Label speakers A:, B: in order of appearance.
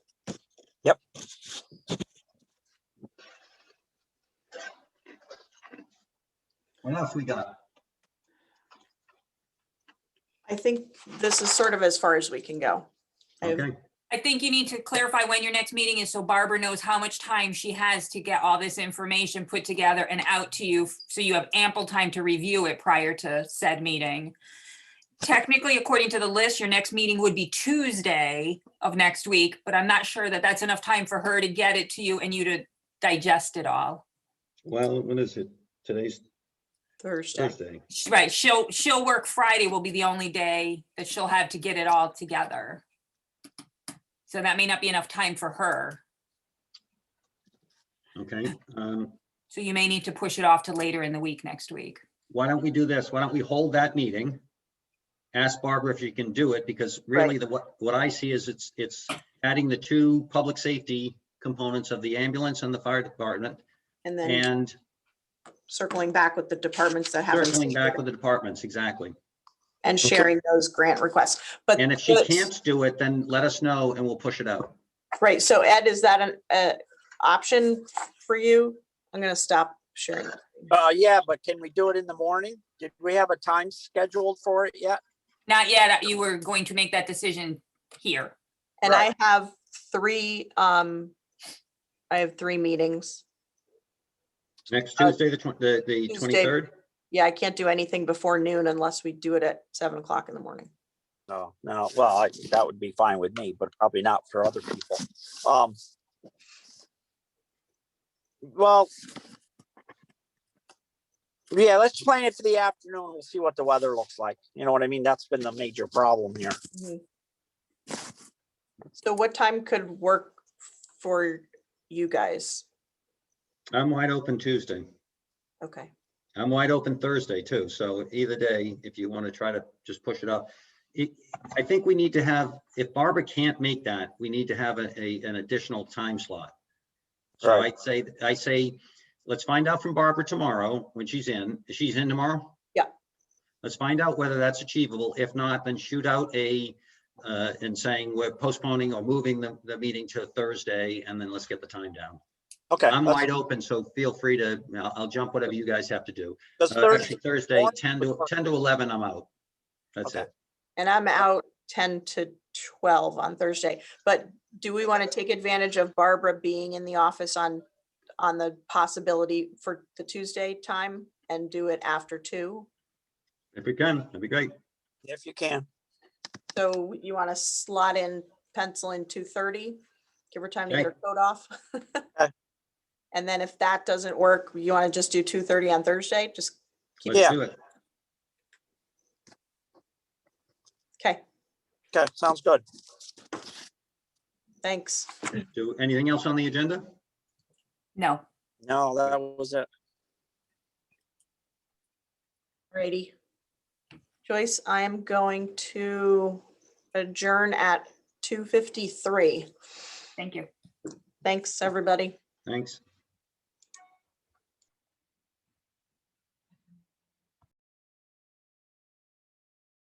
A: What else we got?
B: I think this is sort of as far as we can go. I have-
A: Okay,
C: I think you need to clarify when your next meeting is so Barbara knows how much time she has to get all this information put together and out to you. So you have ample time to review it prior to said meeting. Technically, according to the list, your next meeting would be Tuesday of next week, but I'm not sure that that's enough time for her to get it to you and you to digest it all.
D: Well, when is it? Today's
B: Thursday.
D: Thursday.
C: She- Right, she'll, she'll work Friday will be the only day that she'll have to get it all together. So that may not be enough time for her.
A: okay. Um,
C: So you may need to push it off to later in the week next week.
A: Why don't we do this? Why don't we hold that meeting? Ask Barbara if she can do it, because really the, what, what I see is it's, it's adding the two public safety components of the ambulance and the fire department
B: And then
A: and
B: circling back with the departments that haven't.
A: circling back with the departments, exactly.
B: And sharing those grant requests. But.
A: And if she
B: but-
A: can't do it, then let us know and we'll push it out.
B: Right, so Ed, is that an, uh, option for you? I'm gonna stop sharing.
E: Uh, yeah, but can we do it in the morning? Did we have a time scheduled for it yet?
C: Not yet, uh, you were going to make that decision here.
B: And I
E: Right.
B: have three, um, I have three meetings.
A: Next
B: Uh,
A: Tuesday, the twen- the, the
B: Tuesday.
A: twenty-third?
B: Yeah, I can't do anything before noon unless we do it at seven o'clock in the morning.
E: No, no, well, I- that would be fine with me, but probably not for other people. Um. Well. Yeah, let's plan it for the afternoon. We'll see what the weather looks like. You know what I mean? That's been the major problem here.
B: Mhm. So what time could work for you guys?
A: I'm wide open Tuesday.
B: Okay,
A: I'm wide open Thursday too, so either day, if you want to try to just push it up. It- I think we need to have, if Barbara can't make that, we need to have a, a- an additional time slot. So
E: Right.
A: I'd say, I say, let's find out from Barbara tomorrow when she's in. Is She's in tomorrow?
B: Yeah.
A: Let's find out whether that's achievable. If not, then shoot out a, uh, and saying we're postponing or moving the, the meeting to Thursday, and then let's get the time down.
E: Okay.
A: I'm
E: let's-
A: wide open, so feel free to, I'll- I'll jump whatever you guys have to do.
E: let's
A: Uh,
E: Thursday-
A: Actually, Thursday,
E: morning
A: 10
E: was
A: to,
E: perfect.
A: 10 to 11, I'm out. That's
E: Okay.
A: it.
B: and I'm out ten to twelve on Thursday, but do we want to take advantage of Barbara being in the office on, on the possibility for the Tuesday time and do it after two?
A: If we can, that'd be great.
E: If you can.
B: So you want to slot in, pencil in two thirty, give her time to get
A: Okay.
B: her coat off? And then if that doesn't work, you want to just do two thirty on Thursday? Just,
A: Let's
E: Yeah.
A: do it.
B: okay,
E: Okay, sounds good.
B: thanks.
A: Do, anything else on the agenda?
C: No,
E: No, that was it.
B: Alrighty. Joyce, I am going to adjourn at two fifty-three.
C: thank you.
B: Thanks, everybody.
A: Thanks.